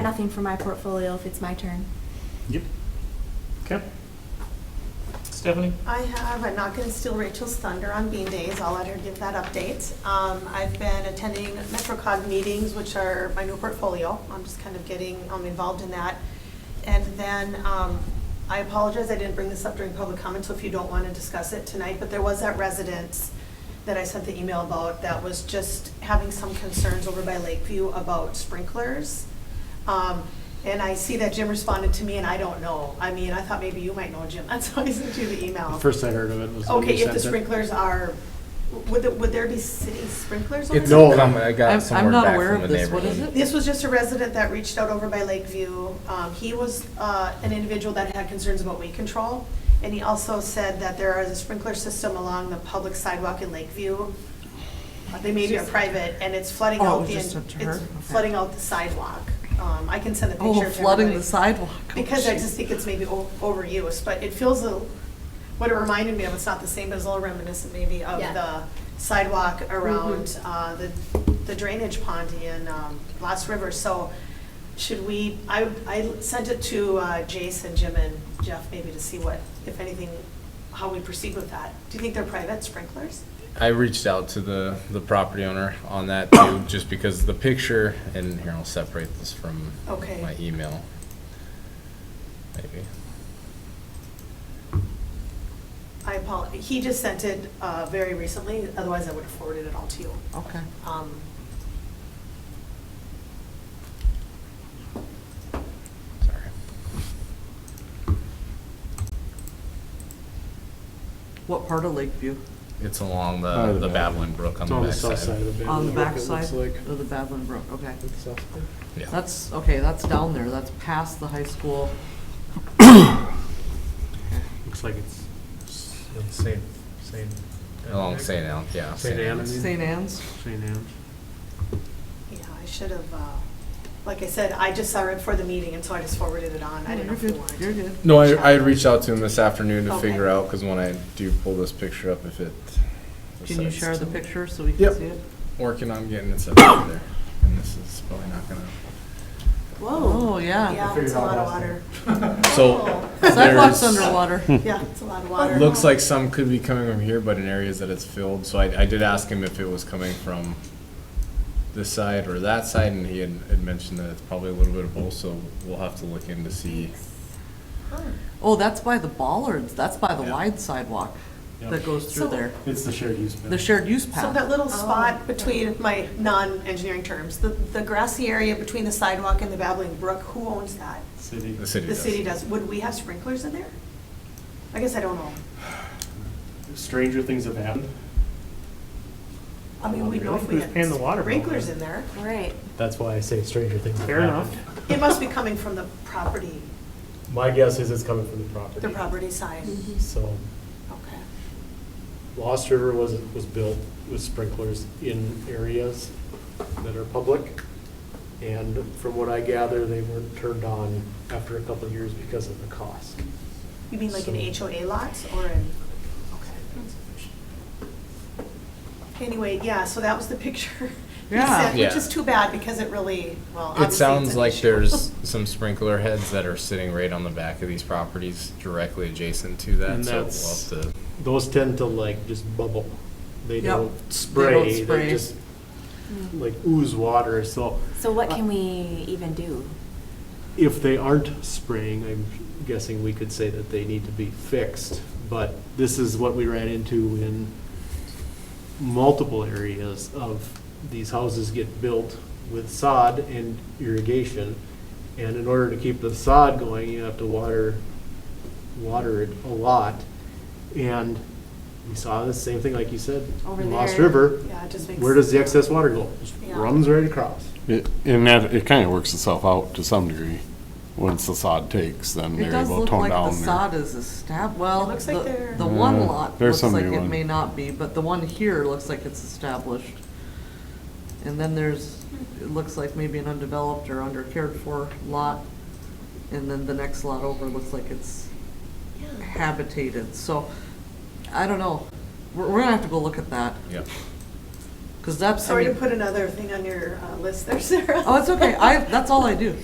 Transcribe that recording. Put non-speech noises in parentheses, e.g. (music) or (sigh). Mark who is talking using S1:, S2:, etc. S1: Nothing for my portfolio if it's my turn.
S2: Yep. Okay. Stephanie?
S3: I have, I'm not going to steal Rachel's thunder on Bean Days, I'll let her give that update. Um, I've been attending MetroCog meetings, which are my new portfolio, I'm just kind of getting um, involved in that. And then, um, I apologize, I didn't bring this up during public comment, so if you don't want to discuss it tonight, but there was that residence that I sent the email about that was just having some concerns over by Lakeview about sprinklers. Um, and I see that Jim responded to me, and I don't know. I mean, I thought maybe you might know, Jim. (laughs) That's why I sent you the email.
S2: The first I heard of it was. when
S3: Okay,
S2: you
S3: if the
S2: sent it.
S3: sprinklers are, would, there- would there be city sprinklers on
S4: It's
S3: there?
S2: No.
S4: a comment I
S5: I'm-
S4: got
S5: I'm
S4: somewhere
S5: not
S4: back
S5: aware
S4: from the
S5: of
S4: neighborhood.
S5: this. What is it?
S3: This was just a resident that reached out over by Lakeview. Um, he was, uh, an individual that had concerns about weed control. And he also said that there is a sprinkler system along the public sidewalk in Lakeview. Uh, They may be a private, and it's flooding
S5: Oh, it
S3: out
S5: was
S3: the,
S5: just up to her?
S3: it's
S5: Okay.
S3: flooding out the sidewalk. Um, I can send a picture to
S5: Oh,
S3: everybody.
S5: flooding the sidewalk. Oh,
S3: Because I
S5: jeez.
S3: just think it's maybe o- overused, but it feels, a what it reminded me of, it's not the same, but it's a little reminiscent maybe of
S1: Yeah.
S3: the sidewalk around uh, the the drainage pond in um, Lost River. So should we, I, I sent it to uh, Jason, Jim, and Jeff maybe to see what, if anything, how we proceed with that. Do you think they're private sprinklers?
S4: I reached out to the, the property owner on that (coughs) too, just because the picture, and here, I'll separate this from
S3: Okay.
S4: my email. Maybe.
S3: I apologize, he just sent it uh, very recently, otherwise I would have forwarded it all to you.
S5: Okay.
S3: Um,
S4: Sorry.
S5: What part of Lakeview?
S4: It's along
S2: Oh,
S4: the,
S2: the
S4: the
S2: back.
S4: Babbling Brook on
S2: It's
S4: the
S2: on the south side
S4: backside.
S2: of it.
S5: On the
S2: it looks
S5: backside
S2: like.
S5: of the Babbling Brook, okay.
S2: The south side.
S4: Yeah.
S5: That's, okay, that's down there, that's past the high school.
S2: Looks like it's.
S6: St. St.
S4: Along St. Anne, yeah.
S2: St. Anne, I mean.
S5: St. Anne's?
S2: St. Anne's.
S3: Yeah, I should have, uh, like I said, I just saw it before the meeting, and so I just forwarded it on. I didn't know
S5: Oh, You're
S3: if you
S5: good,
S3: wanted to.
S5: you're good.
S4: No, I, I had reached out to him this afternoon to
S3: Okay.
S4: figure out, because when I do pull this picture up, if it.
S5: Can you
S4: decides
S5: share the
S4: to-
S5: picture so we can
S4: Yep.
S5: see it?
S4: Working on getting it set up (coughs) there, and this is probably not gonna.
S5: Oh, yeah.
S3: Yeah, it's a lot of water. (laughs)
S4: So.
S5: Oh. (laughs) Sidewalk's
S4: there's- (laughs)
S5: underwater.
S3: Yeah, it's a lot of water.
S4: Looks like some could be coming from here, but in areas that it's filled, so I, I did ask him if it was coming from this side or that side, and he had, had mentioned that it's probably a little bit of both, so we'll have to look in to see.
S5: Oh, that's by the bollards, that's by the
S4: Yeah.
S5: wide sidewalk
S2: Yep.
S5: that goes through
S3: So-
S5: there.
S2: It's the shared use.
S5: The shared use
S3: So that
S5: path.
S3: little spot between, my non-engineering terms, the, the grassy area between the sidewalk and the babbling brook, who owns that?
S2: City.
S4: The city
S3: The
S4: does.
S3: city does. Would we have sprinklers in there? I guess I don't know.
S2: Stranger things have happened.
S3: I mean, we'd know if we
S6: Who's
S3: had
S6: paying the water bill?
S3: sprinklers in there.
S1: Right.
S6: That's why I say stranger things have
S2: Fair enough.
S6: happened.
S3: It must be coming from the property,
S6: My guess is it's coming from the property.
S3: the property side.
S5: Mm-hmm.
S6: So
S3: Okay.
S6: Lost River was, was built with sprinklers in areas that are public. And from what I gather, they weren't turned on after a couple of years because of the cost.
S3: You mean like an
S6: So-
S3: HOA lot or an, okay. Anyway, yeah, so that was the (laughs) picture. he
S5: Yeah.
S3: sent, Which
S4: Yeah.
S3: is too bad because it really, well, obviously
S4: It
S3: it's
S4: sounds
S3: an
S4: like
S3: issue. (laughs)
S4: there's some sprinkler heads that are sitting right on the back of these properties directly adjacent to that,
S6: And
S4: so
S6: that's-
S4: we'll have to.
S6: Those tend to like just bubble. They
S5: Yep.
S6: don't
S5: don't
S6: spray,
S5: spray.
S6: they just like ooze water, so
S1: So what can we even do?
S6: if they aren't spraying, I'm guessing we could say that they need to be fixed, but this is what we ran into in multiple areas of these houses get built with sod and irrigation. And in order to keep the sod going, you have to water, water it a lot. And we saw the same thing, like you said,
S1: Over
S6: in Lost
S1: there.
S6: River.
S3: Yeah, it just makes.
S6: Where does the excess water go? Just
S3: Yeah.
S6: Runs right across.
S7: It- And that, it kind of works itself out to some degree. Once the sod takes, then
S5: It
S7: they're
S5: does
S7: able to
S5: look
S7: tone
S5: like the
S7: down.
S5: sod is estab, well,
S3: It looks like
S5: the,
S3: they're-
S5: the one
S7: Yeah,
S5: lot
S7: there's
S5: looks
S7: some
S5: like
S7: new
S5: it
S7: one.
S5: may not be, but the one here looks like it's established. And then there's, it looks like maybe an undeveloped or under cared for lot. And then the next lot over looks like it's habitated, so, I don't know. We're, we're gonna have to go look at that,
S4: Yep.
S5: cause that's, I
S3: Sorry to
S5: mean,
S3: put another thing on your uh, list there, Sarah.
S5: oh, it's okay, I, that's all I do.